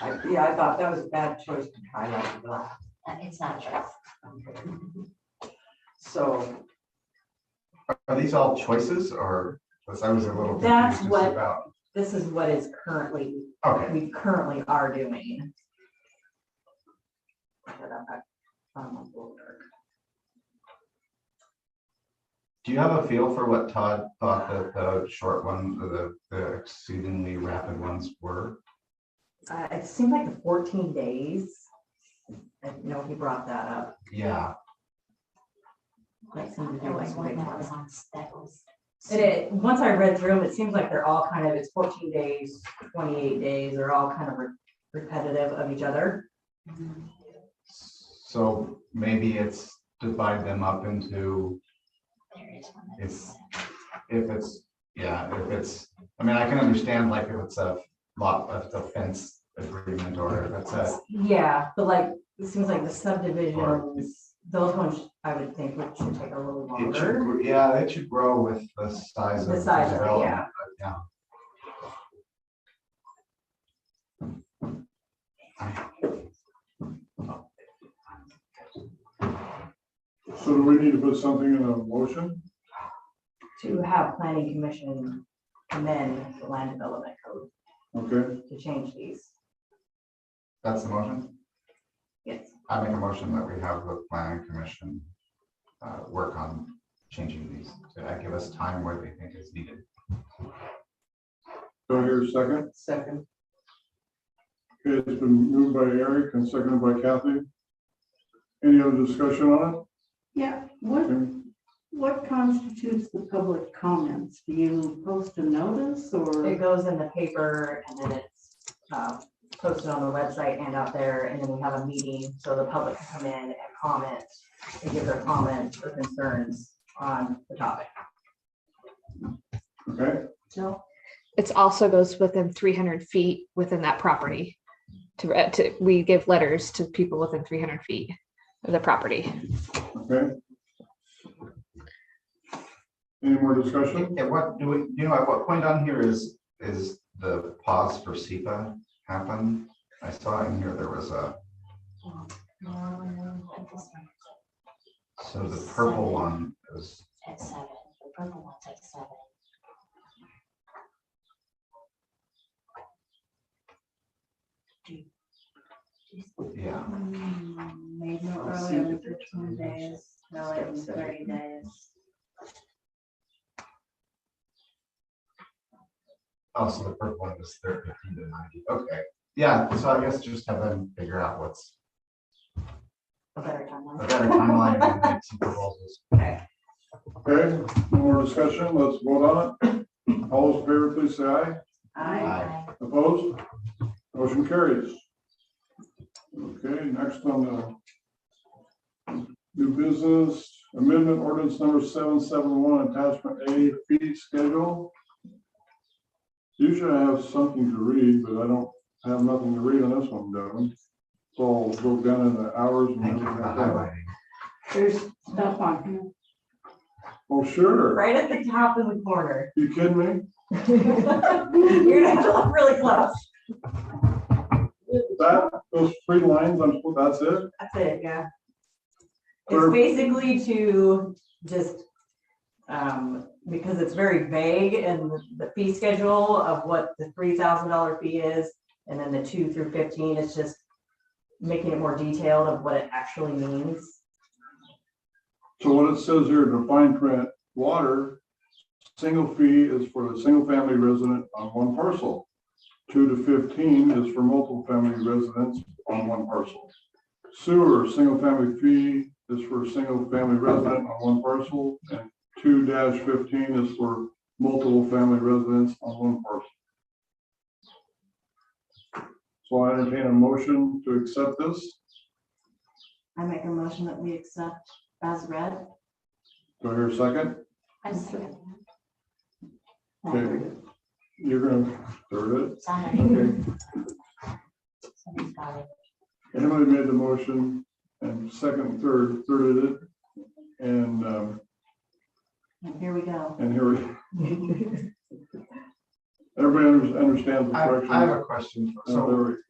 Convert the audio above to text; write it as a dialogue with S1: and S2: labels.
S1: I, yeah, I thought that was a bad choice to highlight black,
S2: Uh, It's not true.
S1: so
S3: Are these all choices or, because I was a little
S4: That's
S3: confused
S4: what-
S3: just about,
S4: This is what is currently,
S3: okay,
S4: we currently are doing. Put up a- um, folder.
S3: do you have a feel for what Todd thought that the short one, the, the exceedingly rapid ones were?
S4: Uh, it seemed like the fourteen days. I know he brought that up.
S3: Yeah,
S4: That seemed to
S2: There
S4: be
S2: was
S4: like
S2: one
S4: big
S2: that
S4: one.
S2: was on, that was.
S4: And it, once I read through them, it seems like they're all kind of, it's fourteen days, twenty-eight days, they're all kind of re- repetitive of each other.
S2: Mhm.
S3: so maybe it's divide them up into,
S2: There is one that
S3: It's-
S2: was.
S3: if it's, yeah, if it's, I mean, I can understand like if it's a lot, of the fence agreement or if it's a,
S4: Yeah, but like, it seems like the
S3: Or-
S4: subdivisions, those ones, I would think would should take a little
S3: it should,
S4: longer.
S3: gr- yeah, it should grow with the size of
S4: The
S3: the
S4: size of it, yeah.
S3: development. yeah.
S5: So do we need to put something in a motion?
S4: To have planning commission amend the land development code
S5: Okay,
S4: to change these.
S3: That's the motion?
S4: Yes.
S3: I make a motion that we have the planning commission uh, work on changing these. Did I give us time where they think is needed?
S5: do I hear a second?
S1: second,
S5: Okay, it's been moved by Eric and seconded by Kathy. Any other discussion on
S6: Yeah, what,
S5: it?
S6: what constitutes the public comments? Do you post a notice
S4: It
S6: or?
S4: goes in the paper and then it's uh, posted on the website and out there, and then we have a meeting, so the public can come in and comment and give their comments or concerns on the topic.
S5: Okay,
S6: No.
S7: It's also goes within three hundred feet within that property. To, re- to, we give letters to people within three hundred feet of the property.
S5: okay. Any more discussion?
S3: At what, do we, you know, at what point on here is, is the pause for SEPA happen? I saw in here there was a,
S2: No, no, at this one,
S3: so the purple one is,
S2: at seven, the purple one's at seven. Do- do-
S3: yeah.
S6: Hmm, Made no
S3: I'll see
S6: earlier than
S3: if it's on
S6: fifteen
S3: the motion.
S6: days, no later than
S3: Step
S6: thirty days.
S3: Oh, so the purple one is thir- 15 to ninety. Okay, yeah, so I guess just have them figure out what's
S4: A better timeline.
S3: a better timeline and make some proposals.
S5: Okay, no more discussion, let's vote on it. All those in favor, please say aye.
S6: I,
S5: Opposed? Motion carries. Okay, next on the new business amendment ordinance number seven seven one, attachment A, fee schedule. Usually I have something to read, but I don't have nothing to read on this one, Devin. So I'll go down in the hours and
S3: Thank you
S5: everything
S3: for
S5: like that.
S3: highlighting.
S6: there's stuff on here.
S5: Oh, sure.
S4: Right at the top in the corner.
S5: You kidding me?
S4: You're gonna have to look really close.
S5: That, those three lines, I'm, supposed- that's it?
S4: That's it, yeah.
S5: Or-
S4: It's basically to just, um, because it's very vague in the- the fee schedule of what the three thousand dollar fee is, and then the two through fifteen, it's just making it more detailed of what it actually means.
S5: So what it says here, in the fine print, water, single fee is for the single family resident on one parcel. Two to fifteen is for multiple family residents on one parcel. Sewer, single family fee is for a single family resident on one parcel, and two dash fifteen is for multiple family residents on one parcel. So I entertain a motion to accept this.
S6: I make a motion that we accept as read.
S5: Do I hear a second?
S2: I see.
S5: Okay. You're gonna third it?
S2: Sorry,
S5: Okay.
S2: somebody's got it.
S5: Emily made the motion and second, and third, thirded it. And, um,
S6: And here we go.
S5: and here, we- everybody under- understands the
S3: I, I have
S5: correction.
S3: a question. for-
S5: Uh,
S3: So
S5: there we-